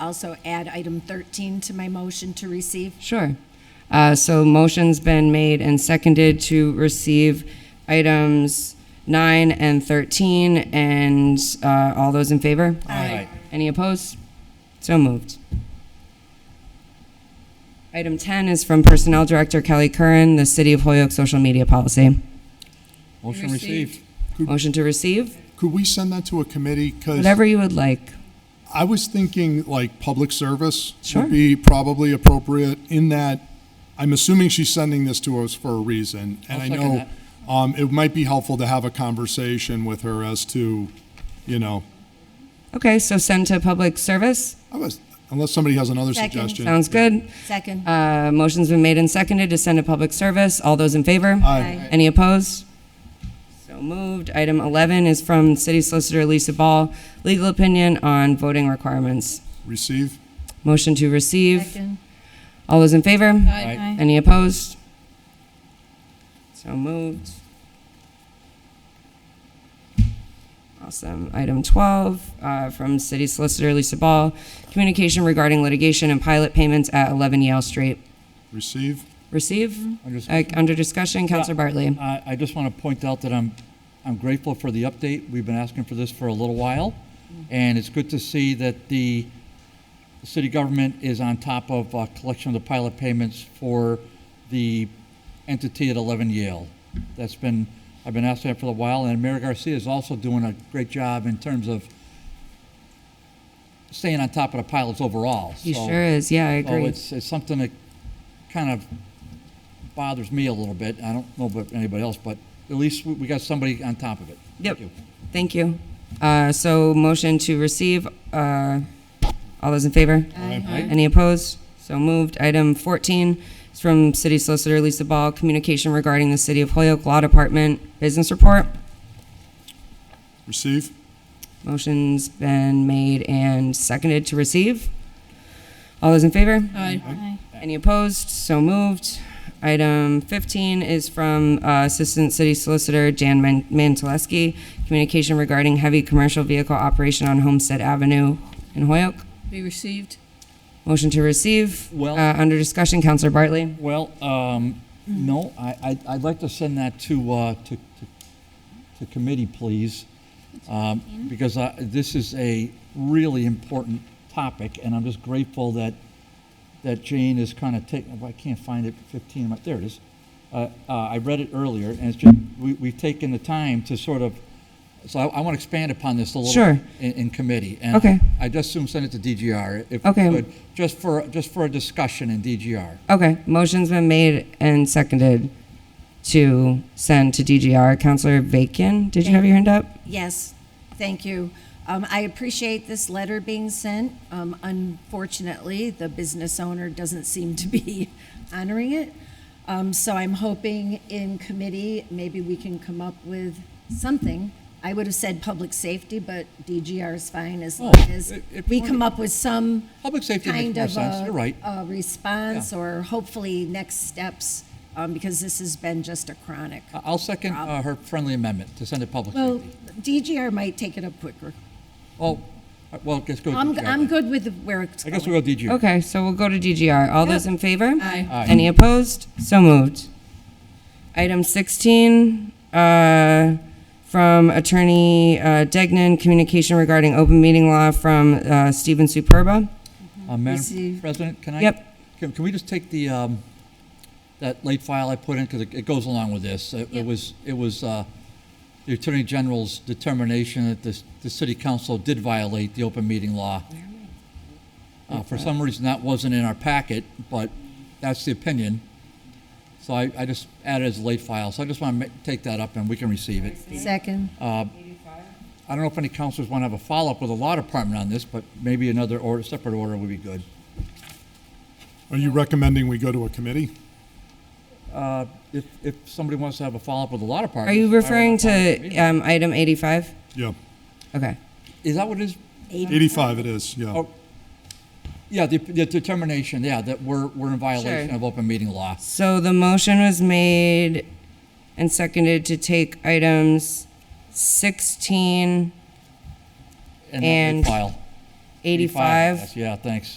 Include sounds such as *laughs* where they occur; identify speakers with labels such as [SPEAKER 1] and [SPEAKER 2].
[SPEAKER 1] also add item 13 to my motion to receive.
[SPEAKER 2] Sure. Uh, So motion's been made and seconded to receive items nine and 13, and uh, all those in favor?
[SPEAKER 1] Aye.
[SPEAKER 2] Any opposed? So moved. Item 10 is from Personnel Director Kelly Curran, the City of Holyoke Social Media Policy.
[SPEAKER 3] Motion received.
[SPEAKER 2] Motion to receive,
[SPEAKER 4] Could we send that to a committee? Because
[SPEAKER 2] whatever you would like.
[SPEAKER 4] I was thinking like public service
[SPEAKER 2] Sure.
[SPEAKER 4] would be probably appropriate in that, I'm assuming she's sending this to us for a reason. And I
[SPEAKER 2] second
[SPEAKER 4] know,
[SPEAKER 2] that.
[SPEAKER 4] um, it might be helpful to have a conversation with her as to, you know,
[SPEAKER 2] Okay, so send to public service.
[SPEAKER 4] I was- unless somebody has another
[SPEAKER 1] Second.
[SPEAKER 4] suggestion.
[SPEAKER 2] Sounds good.
[SPEAKER 1] Second.
[SPEAKER 2] Uh, Motion's been made and seconded to send to public service. All those in favor?
[SPEAKER 4] Aye.
[SPEAKER 2] Any opposed? So moved. Item 11 is from City Solicitor Lisa Ball, legal opinion on voting requirements.
[SPEAKER 4] Receive?
[SPEAKER 2] Motion to receive.
[SPEAKER 1] Second.
[SPEAKER 2] All those in favor?
[SPEAKER 3] Aye.
[SPEAKER 2] Any opposed? So moved. Awesome. Item 12, uh, from City Solicitor Lisa Ball, communication regarding litigation and pilot payments at 11 Yale Street.
[SPEAKER 4] Receive?
[SPEAKER 2] Receive?
[SPEAKER 3] Under discussion.
[SPEAKER 2] Uh, Under discussion, Counselor Bartley.
[SPEAKER 3] I, I just want to point out that I'm, I'm grateful for the update. We've been asking for this for a little while, and it's good to see that the city government is on top of uh, collection of the pilot payments for the entity at 11 Yale. That's been, I've been asking that for a while, and Mayor Garcia is also doing a great job in terms of staying on top of the pilots overall.
[SPEAKER 2] He
[SPEAKER 3] So-
[SPEAKER 2] sure is. Yeah, I
[SPEAKER 3] So
[SPEAKER 2] agree.
[SPEAKER 3] Oh, it's, it's something that kind of bothers me a little bit. I don't know about anybody else, but at least we, we got somebody on top of it.
[SPEAKER 2] Yep.
[SPEAKER 3] Thank you.
[SPEAKER 2] Thank you. Uh, So motion to receive, uh, all those in favor?
[SPEAKER 3] Aye.
[SPEAKER 2] Any opposed? So moved. Item 14 is from City Solicitor Lisa Ball, communication regarding the City of Holyoke Law Department Business Report.
[SPEAKER 4] Receive?
[SPEAKER 2] Motion's been made and seconded to receive. All those in favor?
[SPEAKER 1] Aye.
[SPEAKER 2] Any opposed? So moved. Item 15 is from uh, Assistant City Solicitor Jan Man- Manteleschi, communication regarding heavy commercial vehicle operation on Homestead Avenue in Holyoke.
[SPEAKER 5] Be received.
[SPEAKER 2] Motion to receive.
[SPEAKER 3] Well-
[SPEAKER 2] Uh, Under discussion, Counselor Bartley.
[SPEAKER 3] Well, um, no, I, I'd, I'd like to send that to, uh, to, to, to committee, please. Um, because I, this is a really important topic, and I'm just grateful that, that Jane is kind of taking, oh, I can't find it, fifteen, my- there it is. Uh, uh, I read it earlier, and it's just, we, we've taken the time to sort of, so I, I want to expand upon this a little.
[SPEAKER 2] Sure.
[SPEAKER 3] In, in committee. and
[SPEAKER 2] Okay.
[SPEAKER 3] I just assume send it to DGR if we
[SPEAKER 2] Okay.
[SPEAKER 3] could, just for, just for a discussion in DGR.
[SPEAKER 2] Okay, motion's been made and seconded to send to DGR. Counselor Vacan, did you have your hand up?
[SPEAKER 1] Yes, thank you. Um, I appreciate this letter being sent. Um, unfortunately, the business owner doesn't seem to be *laughs* honoring it. Um, so I'm hoping in committee, maybe we can come up with something. I would have said public safety, but DGR is fine as long
[SPEAKER 3] Oh,
[SPEAKER 1] as
[SPEAKER 3] it- it-
[SPEAKER 1] we come up with some
[SPEAKER 3] Public safety makes
[SPEAKER 1] kind
[SPEAKER 3] more
[SPEAKER 1] of
[SPEAKER 3] sense,
[SPEAKER 1] a,
[SPEAKER 3] you're right.
[SPEAKER 1] a response or hopefully next steps, um, because this has been just a chronic.
[SPEAKER 3] I- I'll second uh, her friendly amendment to send it public
[SPEAKER 1] Well,
[SPEAKER 3] safety.
[SPEAKER 1] DGR might take it up quicker.
[SPEAKER 3] Oh, uh, well, let's go
[SPEAKER 1] I'm,
[SPEAKER 3] DGR
[SPEAKER 1] I'm
[SPEAKER 3] then.
[SPEAKER 1] good with where it's
[SPEAKER 3] I
[SPEAKER 1] going.
[SPEAKER 3] guess we'll go DGR.
[SPEAKER 2] Okay, so we'll go to DGR. All those in favor?
[SPEAKER 5] Aye.
[SPEAKER 3] Aye.
[SPEAKER 2] Any opposed? So moved. Item 16, uh, from Attorney uh, Degnan, communication regarding open meeting law from uh, Stephen Superba.
[SPEAKER 3] Uh, Madam
[SPEAKER 1] Receive.
[SPEAKER 3] President, can I?
[SPEAKER 2] Yep.
[SPEAKER 3] Can, can we just take the, um, that late file I put in, because it, it goes along with this. It, it was, it was, uh, the Attorney General's determination that the, the city council did violate the open meeting law. Uh, for some reason, that wasn't in our packet, but that's the opinion. So I, I just added it as a late file, so I just want to take that up and we can receive it.
[SPEAKER 1] Second.
[SPEAKER 3] I don't know if any councilors want to have a follow-up with the law department on this, but maybe another order, separate order would be good.
[SPEAKER 4] Are you recommending we go to a committee?
[SPEAKER 3] Uh, If, if somebody wants to have a follow-up with the law department.
[SPEAKER 2] Are you
[SPEAKER 3] I would
[SPEAKER 2] referring
[SPEAKER 3] have a follow-up
[SPEAKER 2] to um, item 85?
[SPEAKER 4] Yeah,
[SPEAKER 2] Okay.
[SPEAKER 3] meeting. Is that what it is?
[SPEAKER 4] eighty-five it is, yeah.
[SPEAKER 3] Oh, Yeah, the, the determination, yeah, that we're, we're in violation
[SPEAKER 2] Sure.
[SPEAKER 3] of open meeting law.
[SPEAKER 2] So the motion was made and seconded to take items 16
[SPEAKER 3] that they
[SPEAKER 2] And-
[SPEAKER 3] File.
[SPEAKER 2] 85.
[SPEAKER 3] Yes, Yeah, thanks.